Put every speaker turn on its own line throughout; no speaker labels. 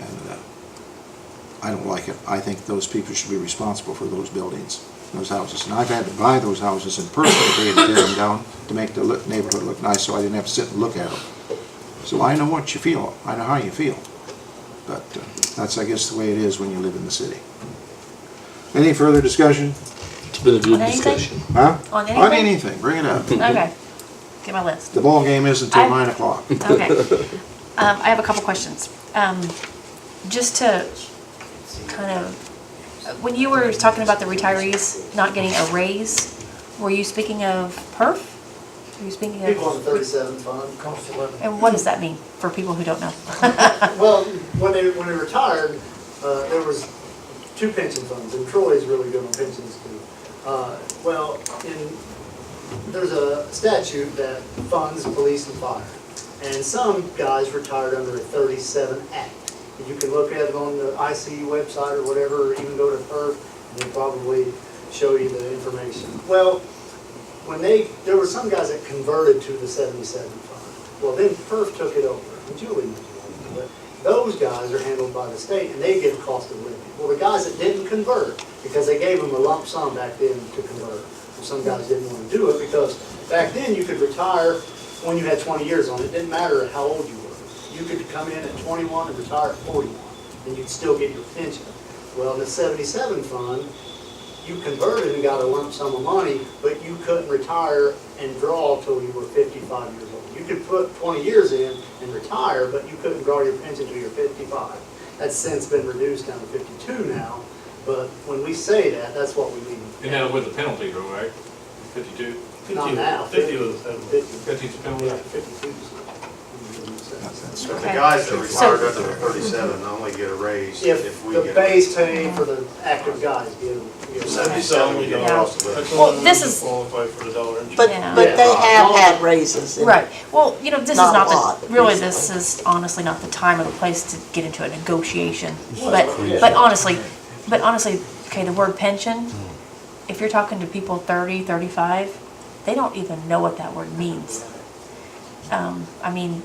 uh, I don't like it. I think those people should be responsible for those buildings, those houses. And I've had to buy those houses in person, they had to tear them down to make the look- neighborhood look nice, so I didn't have to sit and look at them. So I know what you feel, I know how you feel. But uh, that's, I guess, the way it is when you live in the city. Any further discussion?
It's been a good
On anything?
discussion.
Huh?
On
On
anything?
anything, bring it up.
Okay, get my list.
The ball game isn't till
I-
nine o'clock.
Okay. Um, I have a couple questions. Um, just to kind of, when you were talking about the retirees not getting a raise, were you speaking of perf? Were you speaking
People on the
of,
thirty-seven fund.
and what does that mean for people who don't know?
Well, when they, when they retired, uh, there was two pension funds, and Troy's really good on pensions too. Uh, well, in, there's a statute that funds police and fire. And some guys retired under a thirty-seven act. You can look at it on the IC website or whatever, or even go to FERC, and they'll probably show you the information. Well, when they, there were some guys that converted to the seventy-seven fund. Well, then FERC took it over, and Julie was one, but those guys are handled by the state, and they get a cost of living. Well, the guys that didn't convert, because they gave them a lump sum back then to convert, and some guys didn't wanna do it, because back then you could retire when you had twenty years on it, didn't matter how old you were. You could come in at twenty-one and retire at forty-one, and you'd still get your pension. Well, in the seventy-seven fund, you converted and got a lump sum of money, but you couldn't retire and draw till you were fifty-five years old. You could put twenty years in and retire, but you couldn't draw your pension till you're fifty-five. That's since been reduced down to fifty-two now, but when we say that, that's what we mean.
And now with the penalty, though, right? Fifty-two?
Not now.
Fifty was the penalty.
Fifty.
Fifty's the penalty.
Yeah, fifty-two.
But the
Okay.
guys that
So-
retired under the thirty-seven only get a raise
If
if we
the
get.
base pay for the active guys, give, give.
Seventy-seven, we get a
Yeah.
loss of it.
Well, this is-
Qualify for the dollar.
But,
Yeah.
but they have had raises. in-
Right, well, you know, this is
Not a
not
lot,
the,
but
really,
recently.
this is honestly not the time or the place to get into a negotiation. But, but honestly, but honestly, okay, the word pension, if you're talking to people 30, 35, they don't even know what that word means. Um, I mean,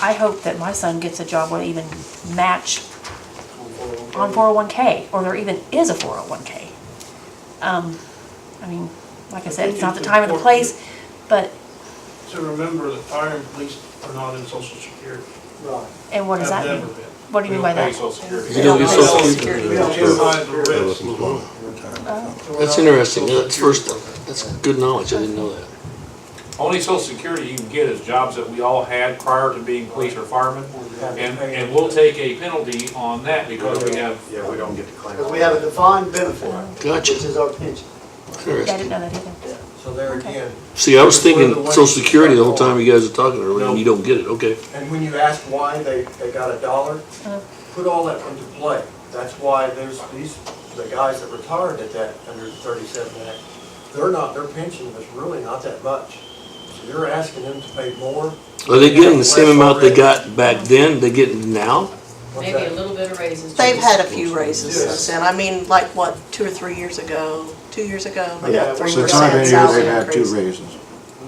I hope that my son gets a job where they even match on 401K, or there even is a 401K. Um, I mean, like I said, it's not the time or the place, but,
to remember that fire and police are not in social security.
Right.
and what does that
Have
mean?
never been.
What do you mean by that?
They don't
You
pay
know, it's
Social
all-
Security.
We don't minimize the risk.
That's interesting. That's first, that's good knowledge. I didn't know that.
Only social security you can get is jobs that we all had prior to being police or firemen. And, and we'll take a penalty on that because we have,
Yeah, we don't get to claim.
Because we have a defined benefit, which
Gotcha.
is our pension.
Yeah, I didn't
Interesting.
know that either.
So there
Okay.
again,
See, I was thinking social security the whole time you guys were talking earlier, and you don't get it. Okay.
and when you ask why they, they got a dollar,
Mm.
put all that into play. That's why there's these, the guys that retired at that under thirty-seven act, they're not, their pension was really not that much. So you're asking them to pay more.
Are they getting the same amount they got back then, they getting now?
What's
Maybe a
that?
little bit of raises.
They've
too.
had a few raises
Yes.
since then. I mean, like, what, two or three years ago, two years ago?
Oh,
they got
Yeah,
three
Since I've been
percent
here,
salary
they've had two
increase.
raises.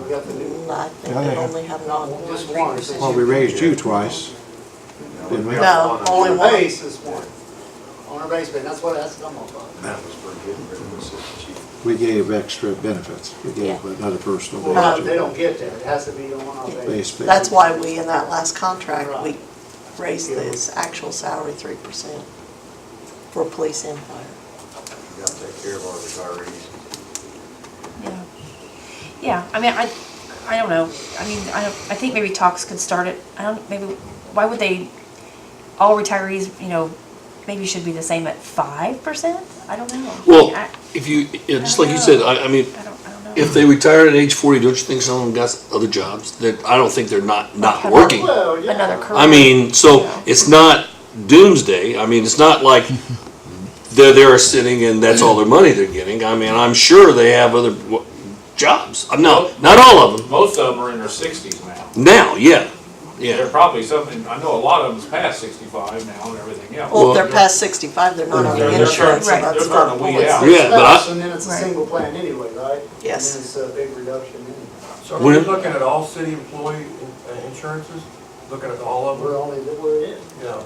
We got the new,
Mm, I think
Yeah, they
they've
have.
only had not one.
just one. since
Well, we raised you twice, didn't we?
No, only
On our
one.
base is one. On our base, but that's what, that's what I'm about.
That was for getting rid of the assistant chief.
We gave extra benefits. We gave another personal
Well, Uh, they
benefit.
don't get that, it has to be on our base.
Base pay.
That's why we, in that last contract, we
Right.
raised this actual salary three percent for police and fire.
We gotta take care of our retirees.
Yeah, yeah. I mean, I, I don't know. I mean, I, don't- I think maybe talks could start it. I don't, maybe, why would they, all retirees, you know, maybe should be the same at five percent? I don't know. I mean,
Well,
I
if you, yeah, just like you said, I, I mean,
I don't, I don't know.
if they retired at age forty, don't you think some of them got other jobs? That, I don't think they're not, not working.
Well, yeah.
Another career.
I mean, so
Yeah.
it's not doomsday. I mean, it's not like they're there sitting and that's all their money they're getting. I mean, I'm sure they have other w- jobs. Uh, No, not all of them.
most of them are in their sixties now.
Now, yeah,
They're
yeah.
probably something, I know a lot of them's past sixty-five now and everything else.
Well, if
Well-
they're past sixty-five, they're not on
They're-
the
they're
insurance, so
turning-
they're
that's
turning
not
way
always.
out.
Yeah, but I-
Spouse, And then it's a
Right.
single plan anyway, right?
Yes.
And it's a big reduction anyway.
So are we
When-
looking at all city employee in- uh, insurances? Looking at all of
We're
them?
only, we're in.
Yeah.